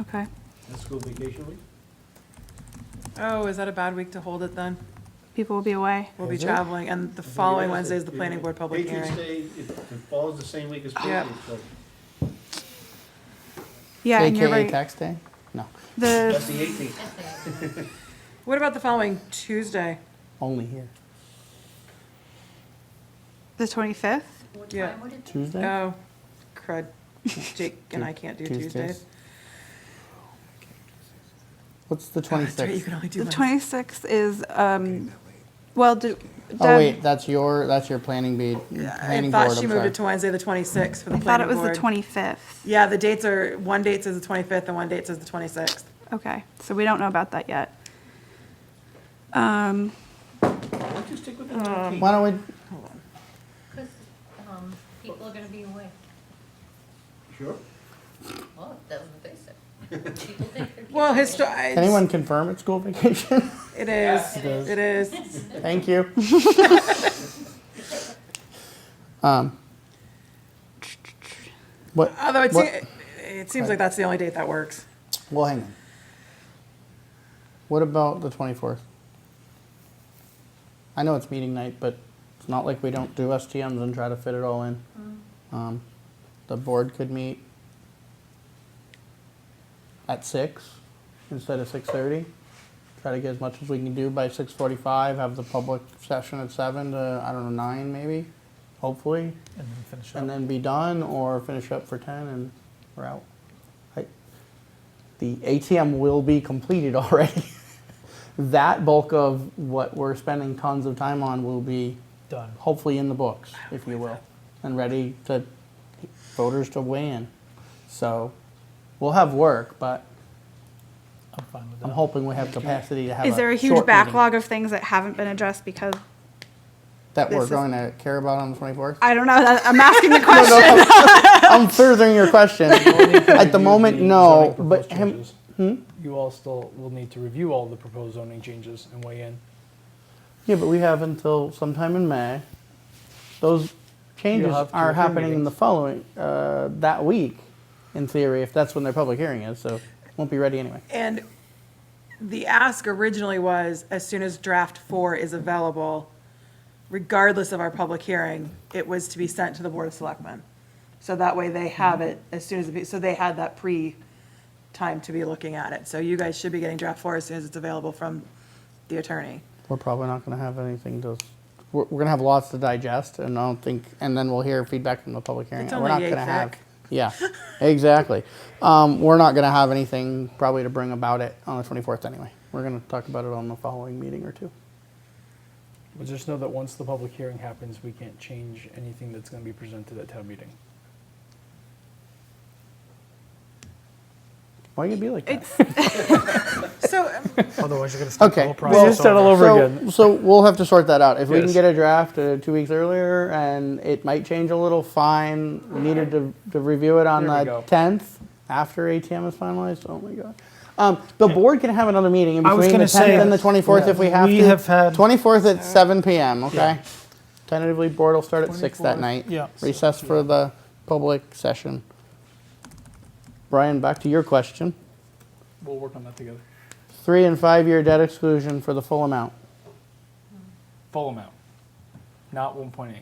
Okay. That's school vacation week? Oh, is that a bad week to hold it then? People will be away. We'll be Is it? traveling, and the following Wednesday is the planning board public hearing. Patriots Day, it it falls the same week as Yeah. Patriots Day. Yeah, and you're AKA right. tax day? No, The That's the eighteenth. What about the following Tuesday? only here. the twenty fifth. What Yeah. time would it be? Tuesday? Oh, crud. Jake and I can't do Tuesdays. What's the Oh, that's right, You 26th? can only do The Wednesday. twenty sixth is um. Well, do, Oh, Deb- wait, that's your, that's your planning be- I planning board, I'm thought she moved sorry. it to Wednesday, the 26th for the I thought planning it was the board. twenty fifth. Yeah, the dates are, one date says the 25th and one date says the 26th. Okay, so we don't know about that yet. Um, Why don't you stick with the nineteenth? Why don't Hold on. 'Cause, um, people are gonna be away. Sure. Well, that's what they said. People think they're. Well, getting histo- away. we, I- anyone confirm it's school vacation? It is, It is. it is. Thank you. Um, What, Although it, What- se- it seems like that's the only date that works. well, hang on. What about the 24th? I know it's meeting night, but it's not like we don't do STMs and try to fit it all in. Um, The board could meet at six instead of 6:30. Try to get as much as we can do by 6:45, have the public session at seven to, I don't know, nine maybe, hopefully. And then finish up. and then be done, or finish up for ten and we're out. I, the ATM will be completed already. that bulk of what we're spending tons of time on will be Done. hopefully in the books, if you will, and ready to voters to weigh in. So we'll have work, but I'm fine with that. I'm hoping we have capacity to have. is there a short huge meeting backlog of things that haven't been addressed because that this we're is- going to care about on the 24th? I don't know. that- I'm asking the question. I'm furthering your question. At the moment, no, Zoning but proposed him, hmm? changes. You all still will need to review all the proposed zoning changes and weigh in. Yeah, but we have until sometime in May. Those changes You'll have two or are three happening in the meetings. following, uh, that week, in theory, if that's when their public hearing is, so won't be ready anyway. And the ask originally was, as soon as draft four is available, regardless of our public hearing, it was to be sent to the Board of Selectmen. So that way they have it as soon as, it- so they had that pre-time to be looking at it. So you guys should be getting draft four as soon as it's available from the attorney. We're probably not gonna have anything to, we're, we're gonna have lots to digest, and I don't think, and then we'll hear feedback from the public hearing. It's We're not only yay gonna have. thick. Yeah, exactly. Um, we're not gonna have anything probably to bring about it on the twenty-fourth anyway. We're gonna talk about it on the following meeting or two. But just know that once the public hearing happens, we can't change anything that's going to be presented at town meeting. Why you gonna be like that? So um, Otherwise, you're going to start the Okay. whole well, process over. so, So we'll have to sort that out. If we can Yes. get a draft uh, two weeks earlier and it might change a little, fine. We needed to, to review it on There we the go. tenth after ATM is finalized. Oh my god. Um, the board can have another meeting in I was between the gonna 10th say, and the 24th if we have we to. have had- 24th at 7 p.m. Okay. Yeah. Tentatively, board will start at six that 24th, night. yeah, so- Recess for the public session. Brian, back to your question. We'll work on that together. Three and five year debt exclusion for the full amount. Full amount, not 1.8.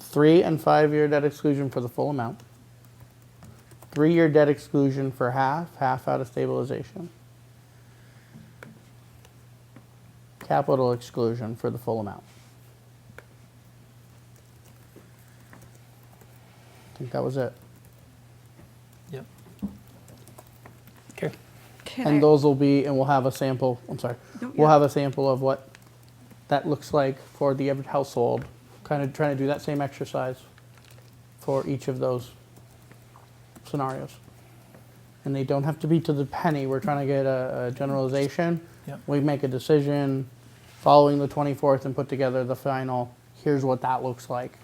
Three and five year debt exclusion for the full amount. Three year debt exclusion for half, half out of stabilization. Capital exclusion for the full amount. I think that was it. Yep. Okay. Can I- And those will be, and we'll have a sample, I'm sorry, Nope, we'll yeah. have a sample of what that looks like for the average household. Kind of trying to do that same exercise for each of those scenarios. And they don't have to be to the penny, we're trying to get a, a generalization. Yep. We make a decision following the twenty-fourth and put together the final, here's what that looks like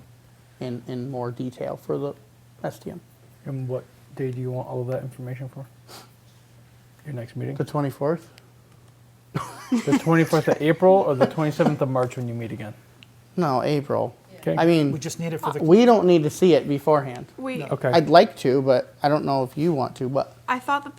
in, in more detail for the STM. And what day do you want all of that information for? Your next meeting? The twenty-fourth? The 24th of April or the 27th of March when you meet again? No, April. Okay. I mean. We just need it for the. We don't need to see it beforehand. we, Okay. I'd like to, but I don't know if you want to, but I thought that